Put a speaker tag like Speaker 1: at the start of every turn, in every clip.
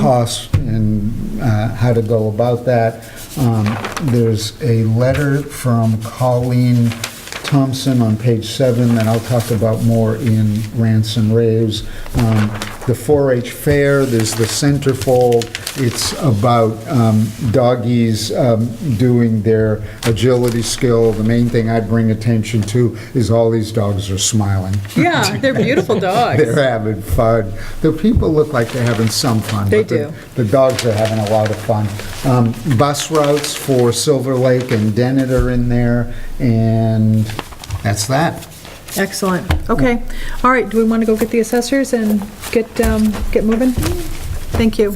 Speaker 1: costs and uh, how to go about that. Um, There's a letter from Colleen Thompson on page seven that I'll talk about more in Rants and Raves. Um, The 4-H fair, there's the centerfold, it's about um, doggies um, doing their agility skill. The main thing I'd bring attention to is all these dogs are smiling.
Speaker 2: Yeah, they're beautiful dogs.
Speaker 1: They're having fun. The people look like they're having some fun.
Speaker 2: They
Speaker 1: but the- The
Speaker 2: do.
Speaker 1: dogs are having a lot of fun. Um, Bus routes for Silver Lake and Dennett are in there, and that's that.
Speaker 2: Excellent. Okay. All right, do we want to go get the assessors and get, um, get moving? Thank you.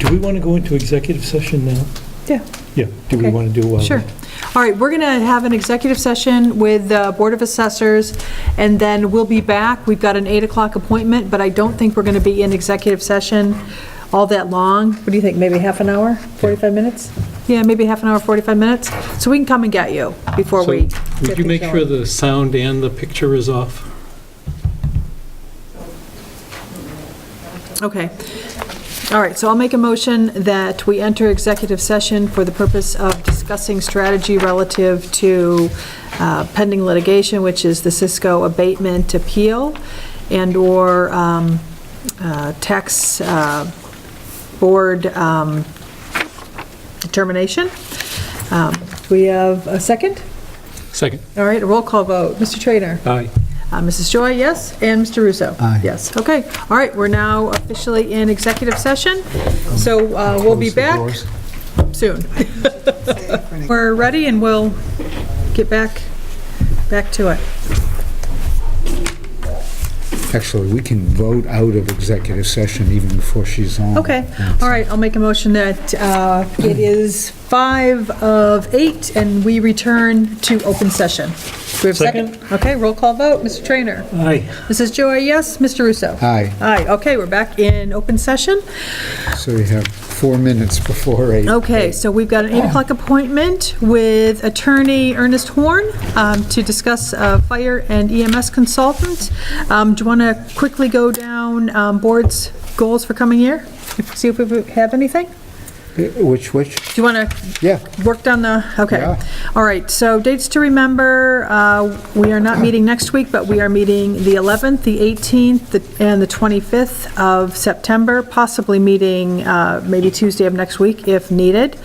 Speaker 3: Do we want to go into executive session now?
Speaker 2: Yeah.
Speaker 3: Yeah, do we
Speaker 2: Okay.
Speaker 3: want to do? uh,
Speaker 2: Sure. All right, we're going to have an executive session with the Board of Assessors, and then we'll be back. We've got an 8 o'clock appointment, but I don't think we're going to be in executive session all that long. What do you think, maybe half an hour, 45 minutes? Yeah, maybe half an hour, 45 minutes. So we can come and get you before
Speaker 4: So,
Speaker 2: we.
Speaker 4: Would you make sure the sound and the picture is off?
Speaker 2: Okay. All right, so I'll make a motion that we enter executive session for the purpose of discussing strategy relative to uh, pending litigation, which is the Cisco abatement appeal and/or um, uh, tax uh, board um, determination. Um, We have a second?
Speaker 4: Second.
Speaker 2: All right, a roll call vote. Mr. Trainer?
Speaker 4: Aye.
Speaker 2: Uh, Mrs. Joy, yes, and Mr. Russo?
Speaker 1: Aye.
Speaker 2: Yes, okay, all right, we're now officially in executive session, so uh, we'll be
Speaker 1: Close the
Speaker 2: back
Speaker 1: doors.
Speaker 2: soon. We're ready and we'll get back, back to it.
Speaker 1: Actually, we can vote out of executive session even before she's on.
Speaker 2: Okay, all right, I'll make a motion that uh, it is five of eight, and we return to open session. Do we have a second? Okay, roll call vote, Mr. Trainer?
Speaker 3: Aye.
Speaker 2: Mrs. Joy, yes, Mr. Russo?
Speaker 1: Aye,
Speaker 2: Aye, okay, we're back in open session.
Speaker 1: so you have four minutes before eight.
Speaker 2: Okay, so we've got an 8 o'clock appointment with attorney Ernest Horn um, to discuss uh, fire and EMS consultant. Um, Do you want to quickly go down um, board's goals for coming year? If- See if we have anything? Do
Speaker 1: Which, which?
Speaker 2: you want to
Speaker 1: Yeah,
Speaker 2: work down the, okay.
Speaker 1: Yeah.
Speaker 2: All right, so dates to remember, uh, we are not meeting next week, but we are meeting the 11th, the 18th, the- and the 25th of September, possibly meeting uh, maybe Tuesday of next week if needed.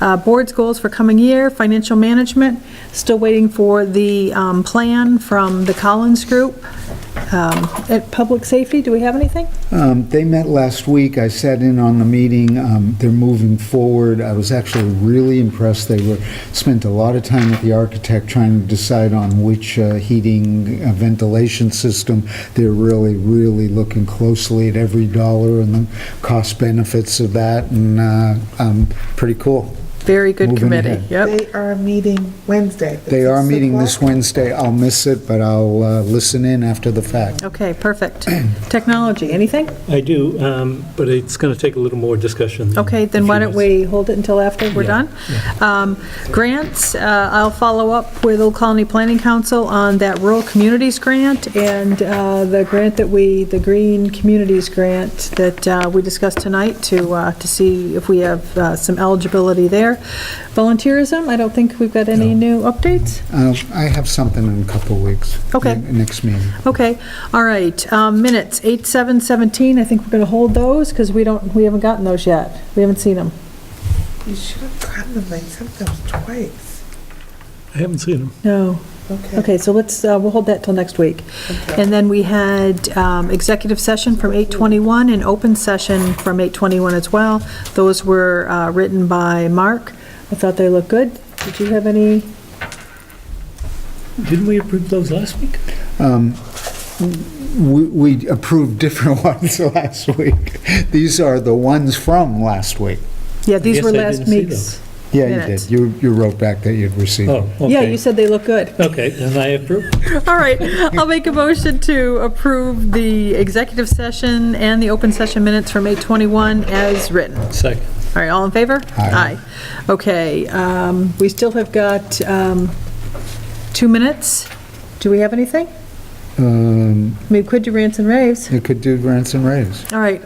Speaker 2: Uh, Board's goals for coming year, financial management, still waiting for the um, plan from the Collins Group. Um, At public safety, do we have anything?
Speaker 1: Um, They met last week. I sat in on the meeting. Um, They're moving forward. I was actually really impressed. They were, spent a lot of time with the architect trying to decide on which uh, heating uh, ventilation system. They're really, really looking closely at every dollar and the cost benefits of that, and uh, um, pretty cool.
Speaker 2: Very good
Speaker 1: Moving
Speaker 2: committee,
Speaker 1: ahead.
Speaker 2: yep.
Speaker 5: They are meeting Wednesday.
Speaker 1: They are meeting this Wednesday. I'll miss it, but I'll uh, listen in after the fact.
Speaker 2: Okay, perfect. Technology, anything?
Speaker 3: I do, um, but it's going to take a little more discussion. than
Speaker 2: Okay,
Speaker 3: a
Speaker 2: then
Speaker 3: few
Speaker 2: why don't
Speaker 3: minutes.
Speaker 2: we hold it until after we're
Speaker 3: Yeah,
Speaker 2: done? Um, Grants, uh, I'll follow up with Old Colony Planning Council on that Rural Communities Grant and uh, the grant that we, the Green Communities Grant that uh, we discussed tonight to, uh, to see if we have uh, some eligibility there. Volunteerism, I don't think we've got any new updates?
Speaker 1: Uh, I have something in a couple weeks.
Speaker 2: Okay.
Speaker 1: Ne- Next meeting.
Speaker 2: Okay, all right, um, minutes, 8, 7, 17, I think we're going to hold those because we don't, we haven't gotten those yet. We haven't seen them.
Speaker 5: You should have gotten them like sometimes twice.
Speaker 3: I haven't seen them.
Speaker 2: No.
Speaker 5: Okay.
Speaker 2: Okay, so let's, uh, we'll hold that till next week.
Speaker 5: Okay.
Speaker 2: And then we had um, executive session from 8:21 and open session from 8:21 as well. Those were uh, written by Mark. I thought they looked good. Did you have any?
Speaker 3: Didn't we approve those last week?
Speaker 1: We we approved different ones last week. These are the ones from last week.
Speaker 2: Yeah, these
Speaker 3: guess
Speaker 2: were
Speaker 3: I
Speaker 2: last
Speaker 3: didn't see
Speaker 2: week's.
Speaker 1: Yeah, you
Speaker 2: Minutes.
Speaker 1: did. You you wrote back that you'd received.
Speaker 3: Oh, okay.
Speaker 2: Yeah, you said they look good.
Speaker 3: Okay, then I approve.
Speaker 2: All right, I'll make a motion to approve the executive session and the open session minutes from 8:21 as written.
Speaker 3: Second.
Speaker 2: All right, all in favor?
Speaker 1: Aye.
Speaker 2: Aye. Okay, um, we still have got um, two minutes. Do we have anything?
Speaker 1: Um,
Speaker 2: I mean, we could do rants and raves.
Speaker 1: It could do rants and raves.
Speaker 2: All right,